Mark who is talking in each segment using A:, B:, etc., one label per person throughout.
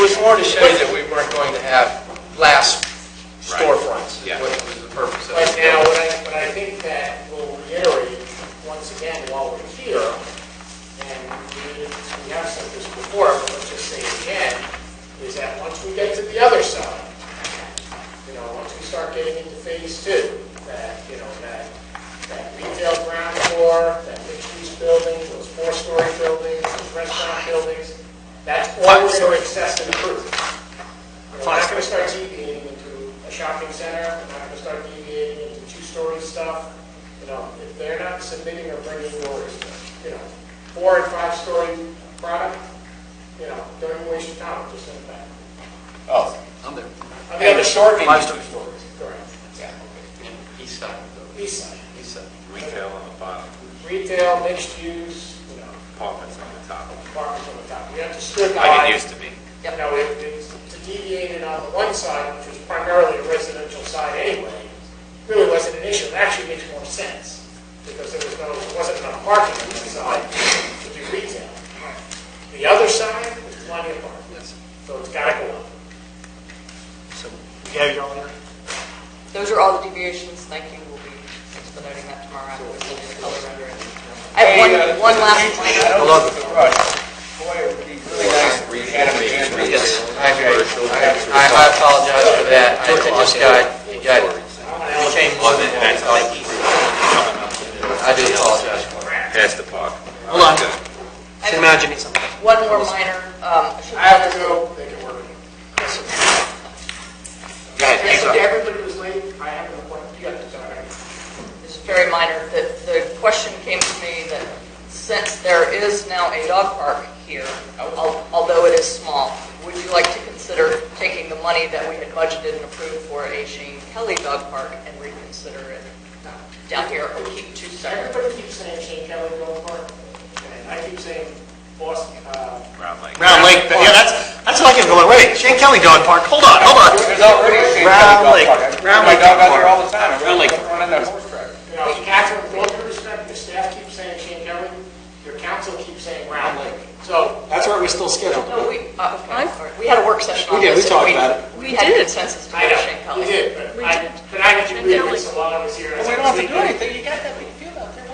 A: was more to show
B: But-
A: that we weren't going to have glass storefronts, is
B: Yeah.
A: what was the purpose of
C: But
A: it.
C: now, what I, what I think that will reiterate, once again, while we're here, and we, we have said this before, but let's just say it again, is that once we get to the other side, you know, once we start getting into phase two, that, you know, that, that retail ground floor, that mixed-use building, those four-story buildings, those restaurant buildings, that's all we're going to access and improve. We're not going to start deviating into a shopping center, we're not going to start deviating into two-story stuff, you know, if they're not submitting or bringing orders, you know, four and five-story product, you know, don't waste your time, just send it back.
B: Oh, I'm there.
C: On the other side,
B: Five story stores.
C: correct,
A: And east side of the building.
C: east side,
A: east side.
D: Retail on the bottom,
C: retail, mixed use, you know,
D: apartments on the top.
C: apartments on the top, we have to strip out.
D: Like it used to be.
C: You know, it- it's deviated on the one side, which was primarily a residential side anyway, really wasn't an issue. It actually makes more sense because there was no, there wasn't enough parking on that side to do retail. The other side, there's plenty of parking, so it's got to go up.
E: Those are all the deviations, thank you, we'll be expediting that tomorrow after we send you the color rendering. I have one, one last point.
B: Hello.
A: Yes, I agree. I I apologize for that. I just got, you got changed on it. I do apologize.
D: Past the park.
F: Hold on.
E: I have
F: Imagine it's something.
E: One more minor, um, I should
C: I have to go make it work. And so to everybody who's late, I have an appointment, you have to go.
E: This is very minor, the, the question came to me that since there is now a dog park here, al- although it is small, would you like to consider taking the money that we had budgeted and approved for a Shane Kelly dog park and reconsider it uh, down here or keep two separate?
C: Everybody keeps saying Shane Kelly Grove Park, and I keep saying Boston, uh,
D: Round Lake.
F: Round Lake, but yeah, that's, that's what I can go, wait, Shane Kelly Dog Park, hold on, hold on.
B: There's already a Shane Kelly dog
F: Round Lake.
B: park. I take
F: Round
B: Oh My
F: Lake
B: dog
F: dog
B: out there
F: park.
B: all the time.
F: Round Lake.
B: Running that horse track.
C: You know, Catherine, with all due respect, the staff keeps saying Shane Kelly, your council keeps saying Round Lake. So,
F: That's where it was still scheduled.
E: No, we, uh, okay, all right. we had a work session
F: We
E: on
F: did, we
E: this. and
F: talked about it.
E: We had consensus to go
C: I
E: to Shane
C: know,
E: Kelly.
C: you did, but
G: We
C: I,
G: did.
C: but I had to
G: And
C: agree
G: then we-
C: with Solana was here.
B: Well, we don't have to do anything. You got that big field out there.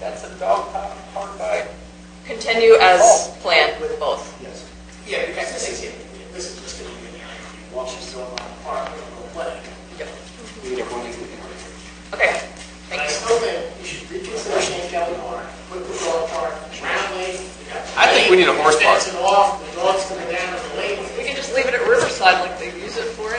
B: That's a dog park park by.
E: Continue as planned with both.
C: Yes. Yeah, because this is, this is just gonna be an area, if you walk into a park, you'll play.
E: Yep.
F: We did it one week.
E: Okay,
C: And I
E: thanks.
C: still think you should reconsider Shane Kelly Park, put the dog park, Round Lake. you got the
B: I think we need a
C: lake,
B: horse park.
C: Fencing off, the dogs coming down to the lake.
E: We can just leave it at Riverside like they use it for